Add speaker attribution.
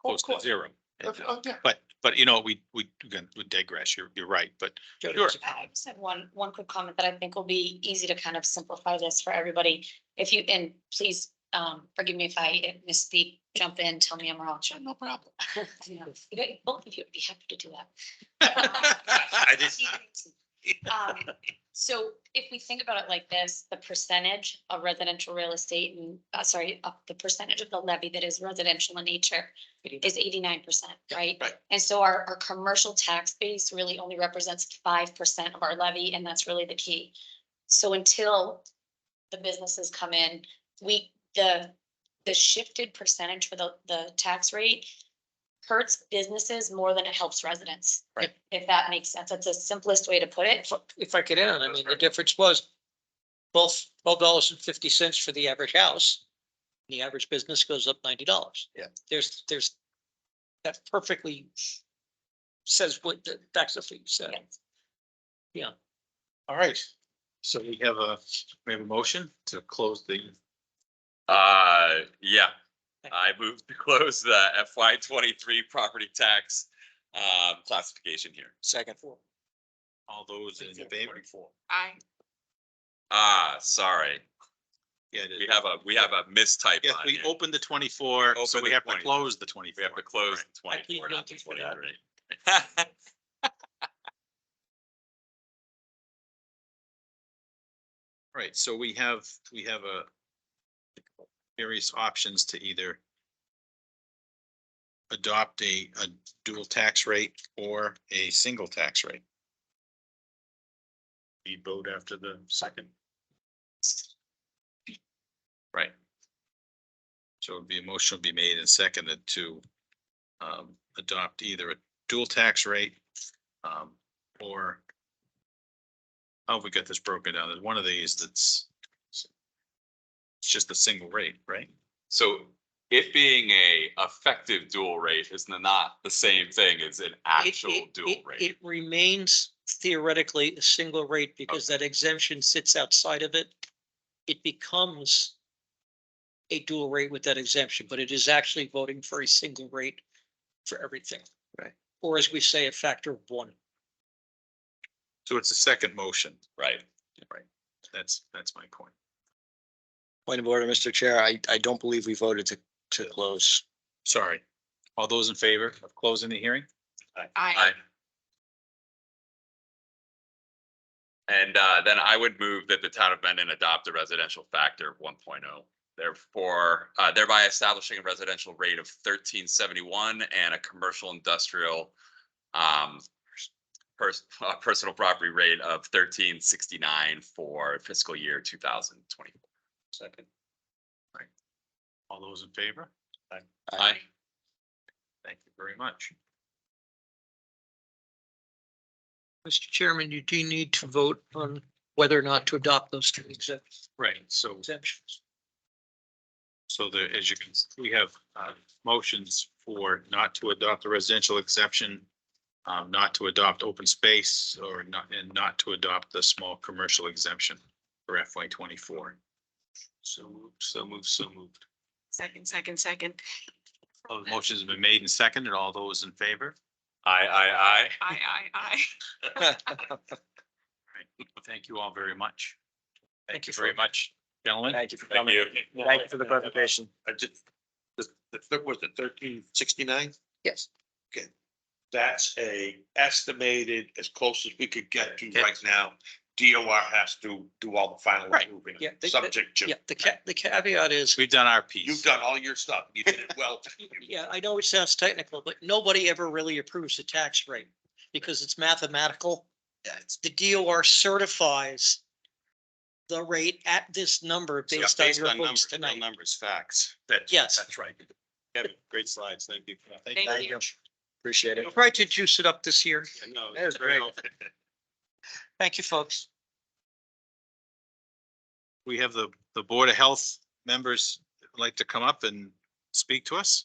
Speaker 1: close
Speaker 2: Oh,
Speaker 1: to
Speaker 2: course.
Speaker 1: zero. uh,
Speaker 2: Of- of- yeah.
Speaker 1: But, but you know, we, we, again, we digress, you're, you're right, but Sure.
Speaker 3: I just have one, one quick comment that I think will be easy to kind of simplify this for everybody. If you, and please, um, forgive me if I misspeak, jump in, tell me I'm wrong.
Speaker 2: Sure, no problem.
Speaker 3: You know, you guys- Both of you would be happy to do that.
Speaker 1: I did-
Speaker 3: Um, So if we think about it like this, the percentage of residential real estate and, uh, sorry, of the percentage of the levy that is residential in nature is eighty-nine percent, right?
Speaker 1: right.
Speaker 3: And so our, our commercial tax base really only represents five percent of our levy, and that's really the key. So until the businesses come in, we, the, the shifted percentage for the, the tax rate hurts businesses more than it helps residents.
Speaker 2: Right.
Speaker 3: If that makes sense. That's the simplest way to put it.
Speaker 4: If, I- if I could add, I mean, the difference was both twelve dollars and fifty cents for the average house. The average business goes up ninety dollars.
Speaker 2: Yeah.
Speaker 4: There's, there's, that perfectly says what, the- that's what you said.
Speaker 3: Yes.
Speaker 1: All right, so we have a, we have a motion to close the,
Speaker 5: Uh, yeah, I moved to close the FY twenty-three property tax um classification here.
Speaker 4: Second.
Speaker 1: all those in favor.
Speaker 2: I.
Speaker 5: Ah, sorry,
Speaker 1: Yeah, it is.
Speaker 5: we have a, we have a mistype
Speaker 1: Yeah,
Speaker 5: on
Speaker 1: we
Speaker 5: here.
Speaker 1: opened the twenty-four, so
Speaker 5: Open
Speaker 1: we
Speaker 5: the
Speaker 1: have to
Speaker 5: 24.
Speaker 1: close the
Speaker 5: We
Speaker 1: twenty-four.
Speaker 5: have to close the
Speaker 4: I plead
Speaker 5: twenty-four, not the
Speaker 4: guilty for that.
Speaker 5: twenty-three.
Speaker 1: Right, so we have, we have a various options to either adopt a, a dual tax rate or a single tax rate. We vote after the second. Right. So it'd be a motion would be made and seconded to um, adopt either a dual tax rate um, or how have we got this broken down? There's one of these that's it's just a single rate, right?
Speaker 5: So it being a effective dual rate is not the same thing as an actual dual rate.
Speaker 4: It remains theoretically a single rate because that exemption sits outside of it. It becomes a dual rate with that exemption, but it is actually voting for a single rate for everything.
Speaker 2: Right.
Speaker 4: Or as we say, a factor of one.
Speaker 1: So it's a second motion.
Speaker 5: Right.
Speaker 1: That's, that's my point.
Speaker 6: Point of order, Mr. Chair, I, I don't believe we voted to, to close.
Speaker 1: Sorry. All those in favor of closing the hearing?
Speaker 2: I.
Speaker 5: And uh, then I would move that the town of Mendon adopt a residential factor of one oh. Therefore, uh, thereby establishing a residential rate of thirteen seventy-one and a commercial industrial um, pers- uh, personal property rate of thirteen sixty-nine for fiscal year two thousand twenty.
Speaker 4: Second.
Speaker 1: All those in favor?
Speaker 5: Aye.
Speaker 1: Thank you very much.
Speaker 4: Mr. Chairman, you do need to vote on whether or not to adopt those two exempt-
Speaker 1: Right, so,
Speaker 4: exemptions.
Speaker 1: so the, as you can, we have uh, motions for not to adopt the residential exception, um, not to adopt open space or not, and not to adopt the small commercial exemption for FY twenty-four. So moved, so moved, so moved.
Speaker 2: Second, second, second.
Speaker 1: All the motions have been made and seconded. All those in favor?
Speaker 5: Aye, aye,
Speaker 2: I, I,
Speaker 1: Thank you all very much. Thank
Speaker 4: Thank
Speaker 1: you
Speaker 4: you
Speaker 1: very
Speaker 4: for-
Speaker 1: much, gentlemen.
Speaker 6: you for
Speaker 5: aye. Thank you.
Speaker 6: Thank you for the presentation.
Speaker 7: I just, the, the, thir- was it thirteen sixty-nine?
Speaker 4: Yes.
Speaker 7: Okay, that's a estimated as close as we could get to right now. DOR has to do all the final
Speaker 4: Right,
Speaker 7: moving,
Speaker 4: yeah, they-
Speaker 7: subject to,
Speaker 4: Yeah, the ca- the caveat is,
Speaker 1: We've done our piece.
Speaker 7: you've done all your stuff, you did it well.
Speaker 4: yeah, I know it sounds technical, but nobody ever really approves the tax rate because it's mathematical. The DOR certifies the rate at this number based on your votes tonight.
Speaker 6: numbers, facts.
Speaker 7: That's-
Speaker 4: Yes.
Speaker 7: That's right.
Speaker 1: Great slides. Thank you.
Speaker 2: I. Thank you.
Speaker 6: Appreciate it.
Speaker 4: I Tried to juice it up this year.
Speaker 7: No,
Speaker 6: That was great.
Speaker 4: Thank you, folks.
Speaker 1: We have the, the Board of Health members like to come up and speak to us.